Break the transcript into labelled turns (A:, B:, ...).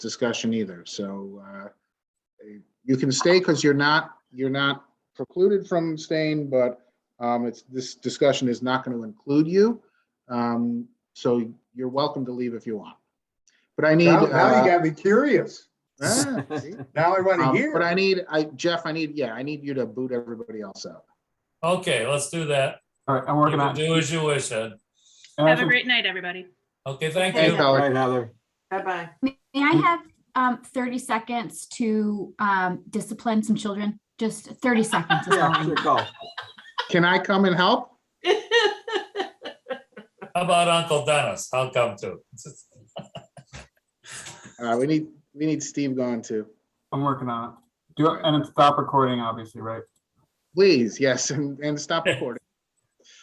A: discussion either, so uh, you can stay because you're not, you're not precluded from staying, but um, it's, this discussion is not going to include you. Um, So you're welcome to leave if you want. But I need.
B: Now, now
A: uh,
B: you gotta be curious.
A: ah, see?
B: Now I want
A: Um,
B: to hear.
A: But I need, I, Jeff, I need, yeah, I need you to boot everybody else out.
C: Okay, let's do that.
D: All right, I'm
C: You
D: working
C: can
D: on it.
C: Do as you wish, Ed.
E: Have a great night, everybody.
C: Okay, thank
A: Hey,
C: you.
D: All
A: Heather.
D: right, Heather.
F: Bye-bye.
G: May I have um, 30 seconds to um, discipline some children? Just 30 seconds is all
D: Yeah,
G: I
D: sure,
G: need.
D: go.
A: Can I come and help?
C: How about Uncle Dennis? I'll come too.
A: Uh, We need, we need Steve gone too.
D: I'm working on it. Do, it- and it's stop recording, obviously, right?
A: Please, yes, and, and stop recording.